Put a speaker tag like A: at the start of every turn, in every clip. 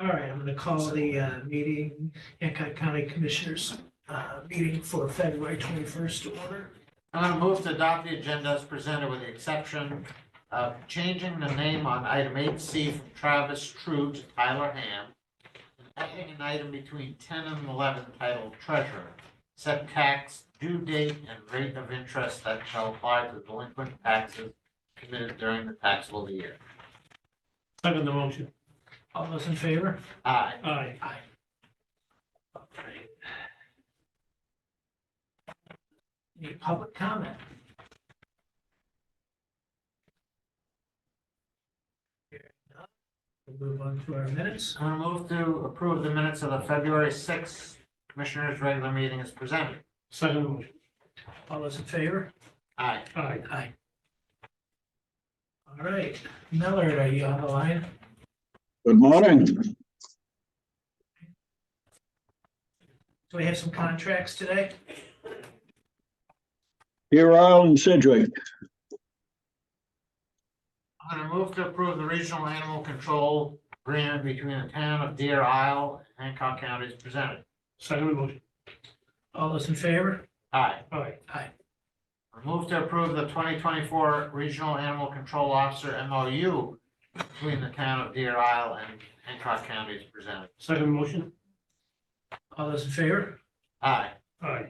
A: All right, I'm going to call the uh, meeting, Hancock County Commissioners, uh, meeting for February 21st to order.
B: I'm gonna move to adopt the agenda as presented with the exception of changing the name on item eight C from Travis True to Tyler Ham. And adding an item between ten and eleven titled Treasurer. Set tax due date and rate of interest that shall apply to delinquent taxes committed during the taxable year.
C: Second the motion.
A: All those in favor?
B: Aye.
C: Aye.
A: All right. Any public comment? Here, no. We'll move on to our minutes.
B: I'm gonna move to approve the minutes of the February sixth Commissioners' regular meeting as presented.
C: Second the motion.
A: All those in favor?
B: Aye.
C: Aye.
A: Aye. All right, Millard, are you on the line?
D: Good morning.
A: Do we have some contracts today?
D: Here Isle and Sedgwick.
B: I'm gonna move to approve the regional animal control agreement between the town of Deer Isle and Hancock County as presented.
C: Second the motion.
A: All those in favor?
B: Aye.
C: Aye.
A: Aye.
B: I move to approve the twenty twenty-four Regional Animal Control Officer MOU between the town of Deer Isle and Hancock County as presented.
C: Second the motion.
A: All those in favor?
B: Aye.
C: Aye.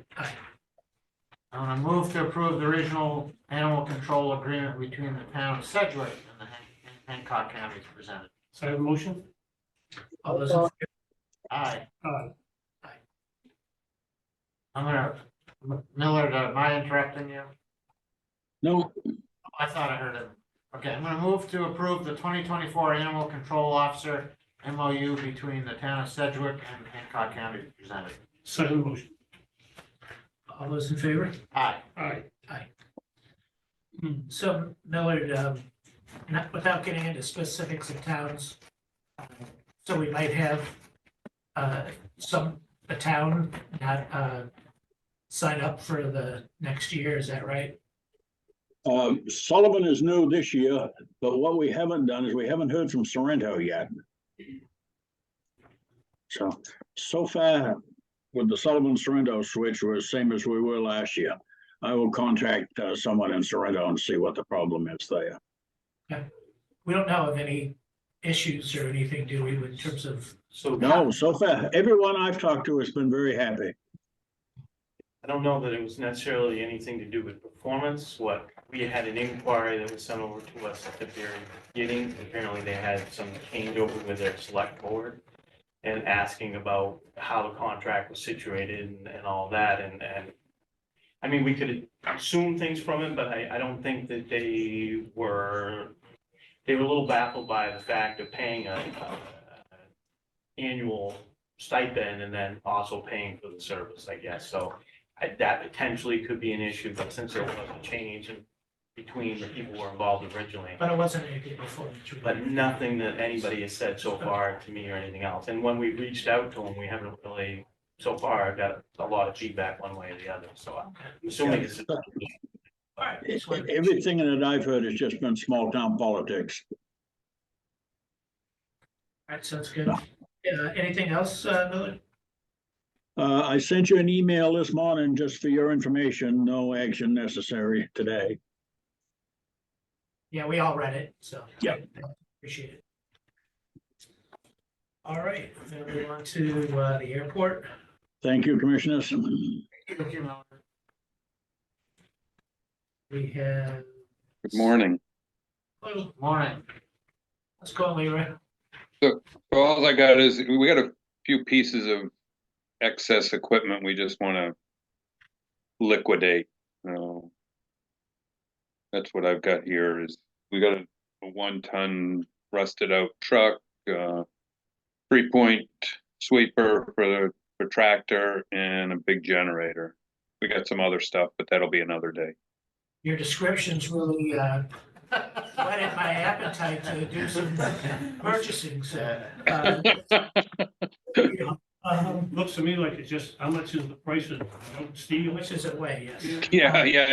B: I'm gonna move to approve the Regional Animal Control Agreement between the town of Sedgwick and the Han- Hancock County as presented.
C: Second the motion.
A: All those, in
B: Aye.
C: Aye.
B: I'm gonna, M- Millard, am I interrupting you?
D: No,
B: I thought I heard it. Okay, I'm gonna move to approve the twenty twenty-four Animal Control Officer MOU between the town of Sedgwick and Hancock County as presented.
C: Second the motion.
A: all those in favor? Hmm,
B: Aye.
C: Aye.
A: So Millard, um, not, without getting into specifics of towns, uh, so we might have, uh, some, a town not, uh, sign up for the next year, is that right?
D: um, Sullivan is new this year, but what we haven't done is we haven't heard from Sorrento yet. So, so far with the Sullivan Sorrento switch was same as we were last year. I will contact uh, someone in Sorrento and see what the problem is there.
A: We don't know of any issues or anything, do we, in terms of,
E: So
D: No, so far, everyone I've talked to has been very happy.
E: I don't know that it was necessarily anything to do with performance, what, we had an inquiry that was sent over to us at the very beginning. Apparently they had some changeover with their select board and asking about how the contract was situated and, and all that and, and I mean, we could assume things from it, but I, I don't think that they were, they were a little baffled by the fact of paying a, a annual stipend and then also paying for the service, I guess, so. I- that potentially could be an issue, but since there was a change in between the people who were involved originally,
A: but it wasn't anything before. that you-
E: but nothing that anybody has said so far to me or anything else. And when we reached out to them, we haven't really, so far, got a lot of feedback one way or the other, so I'm assuming it's.
A: All right,
D: E-
A: just wanted to-
D: Everything that I've heard has just been small town politics.
A: All right, sounds good. Uh, anything else, uh, Millard?
D: Uh, I sent you an email this morning just for your information, no action necessary today.
A: Yeah, we all read it, so.
D: Yeah.
A: Appreciate it. All right, we're gonna move on to uh, the airport.
D: Thank you, Commissioners.
B: Thank you, Millard.
A: We have,
F: Good morning.
A: well,
B: Morning.
A: let's go, Leroy.
F: So All I got is, we got a few pieces of excess equipment we just want to liquidate. Uh, That's what I've got here is, we got a a one-ton rusted out truck, uh, three-point sweeper for the, for tractor and a big generator. We got some other stuff, but that'll be another day.
A: Your descriptions really uh, whetted my appetite to do some purchasing, so. uh, you know, um,
C: Looks to me like it's just, how much is the price of steel?
A: Which is a way, yes.
F: Yeah, yeah,